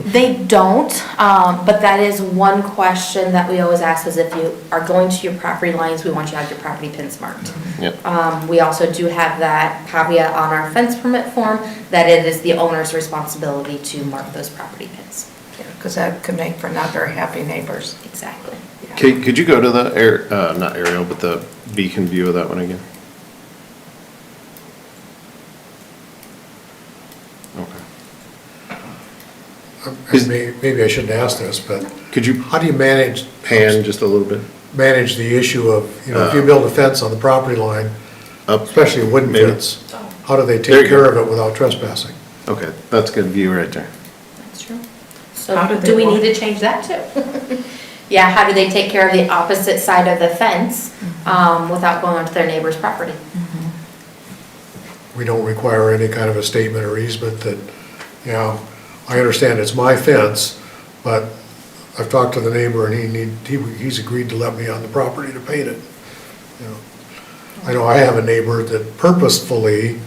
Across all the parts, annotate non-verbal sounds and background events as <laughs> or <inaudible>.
They don't, um, but that is one question that we always ask is if you are going to your property lines, we want you to have your property pins marked. Yep. Um, we also do have that caveat on our fence permit form that it is the owner's responsibility to mark those property pins. Because that could make for not very happy neighbors. Exactly. Kate, could you go to the air, uh, not aerial, but the beacon view of that one again? Okay. Is- And may- Maybe I shouldn't ask this, but Could you how do you manage, pan just a little bit manage the issue of, you know, Uh. if you build a fence on the property line, up? especially a wooden Maybe. fence, how do There they you take go. care of it without trespassing? Okay, that's good view right there. That's true. How So do do they we need want- to change that too? <laughs> Yeah, how do they take care of the opposite side of the fence, Mm-hmm. um, without going onto their neighbor's property? We don't require any kind of a statement or easement that, you know, I understand it's my fence, but I've talked to the neighbor and he need, he, he's agreed to let me on the property to paint it. you know. I know I have a neighbor that purposefully,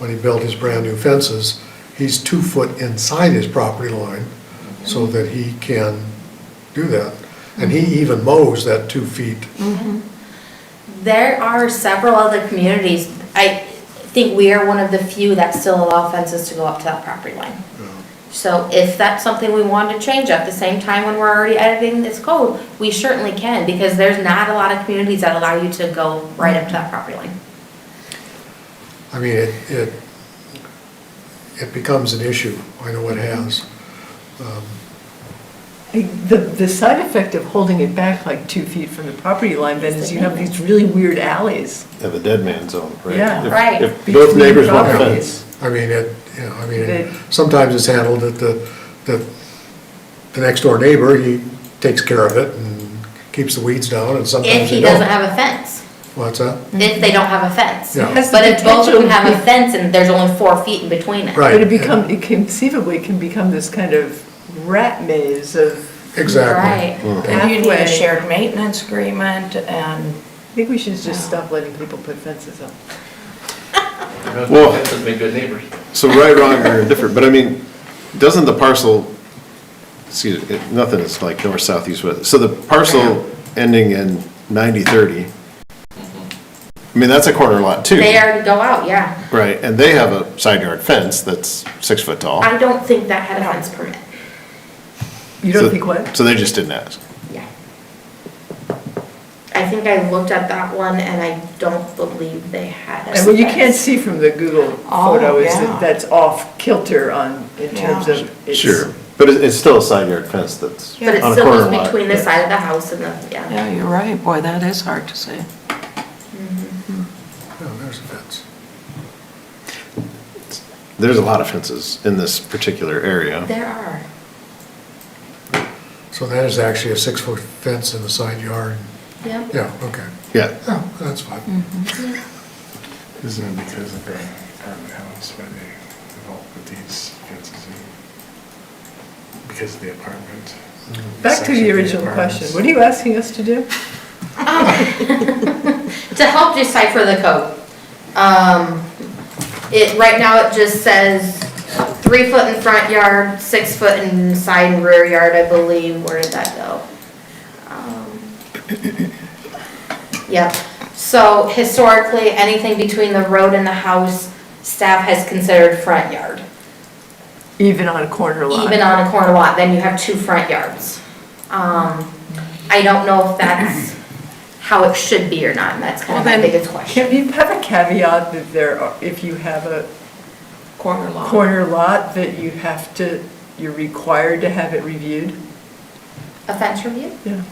when he built his brand-new fences, he's two foot inside his property line so that he can do that. And he even mows that two feet. There are several other communities, I think we are one of the few that still allow fences to go up to that property line. you know. So if that's something we wanted to change at the same time when we're already editing this code, we certainly can, because there's not a lot of communities that allow you to go right up to that property line. I mean, it, it, it becomes an issue, I know it Mm-hmm. has. Um, The, the side effect of holding it back like two feet from the property line then is you have these really weird alleys. Yeah, the dead man zone, right? Yeah. If- Right. If both between neighbors want a properties. fence. I mean, it, you know, I mean, Good. it- sometimes it's handled that the, that the next door neighbor, he takes care of it and keeps the weeds down, and If sometimes he they doesn't don't. have a fence, What's <laughs> that? if they don't have a fence. Yeah. Has Mm-hmm. the But if both of them have a potential- fence and there's only four feet in between it. Right. But it become, it conceivably can become this kind of rat maze of, Exactly. Right. And you need a Halfway. shared maintenance agreement and, I think we should just stop letting people put fences up. Well- That's a big good neighbors. So right, wrong, or indifferent, but I mean, doesn't the parcel, excuse, me, nothing is like north, south, east, west. So the parcel ending in ninety thirty, I mean, that's a corner lot too. They already go out, yeah. Right, and they have a side yard fence that's six foot tall. I don't think that had a fence permit. You don't So- think what? So they just didn't ask. Yeah. I think I looked at that one and I don't believe they had a And what you fence. can't see from the Google Oh, photo is yeah. that that's off kilter on, in terms Yeah. of it's. But it- it's still a side yard fence that's But it on a still corner goes lot. between the side of the house and the, yeah. yeah, you're right, boy, that is hard to say. No, there's a fence. There's a lot of fences in this particular area. There are. So that is actually a six-foot fence in the side yard. Yep. Yeah, okay. Yeah, Yeah, Oh, that's fine. Isn't it because of the apartment house where they involved with these fences in? Because of the apartment. Back to section of the original question, apartments. what are you asking us to do? <laughs> To help decipher the code, um, it, right now it just says three foot in front yard, six foot in side and rear yard, I believe. Where did that go? Um, Yep, so historically, anything between the road and the house, staff has considered front yard. Even on a corner lot? even on a corner lot, then you have two front yards. Um, I don't know if that's how it should be or not, and that's kind of my biggest question. Can you have a caveat that there, are if you have a Corner lot. corner lot, that you have to, you're required to have it reviewed? A fence review? Yeah.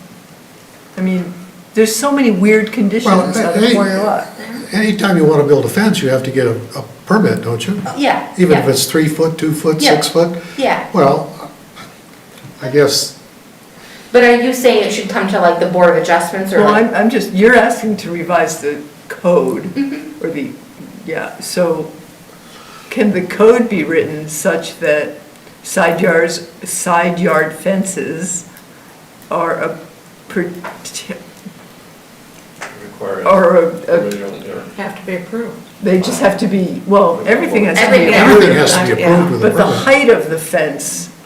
I mean, there's so many weird conditions Well, on a hey, corner lot. Anytime you want to build a fence, you have to get a, a permit, don't you? Oh, Yeah. Even yeah, if it's three foot, two foot, Yeah. six foot? Yeah, Well, I guess but are you saying it should come to like the Board of Adjustments or Well, like? I'm, I'm just, you're asking to revise the code, or the, yeah, so can the code be written such that side yards, side yard fences are a, prote- Require. are a- a, Have to be approved. they just have to be, well, everything has to be. Everything. approved, everything has to be Yeah. approved with a But the permit. height of the fence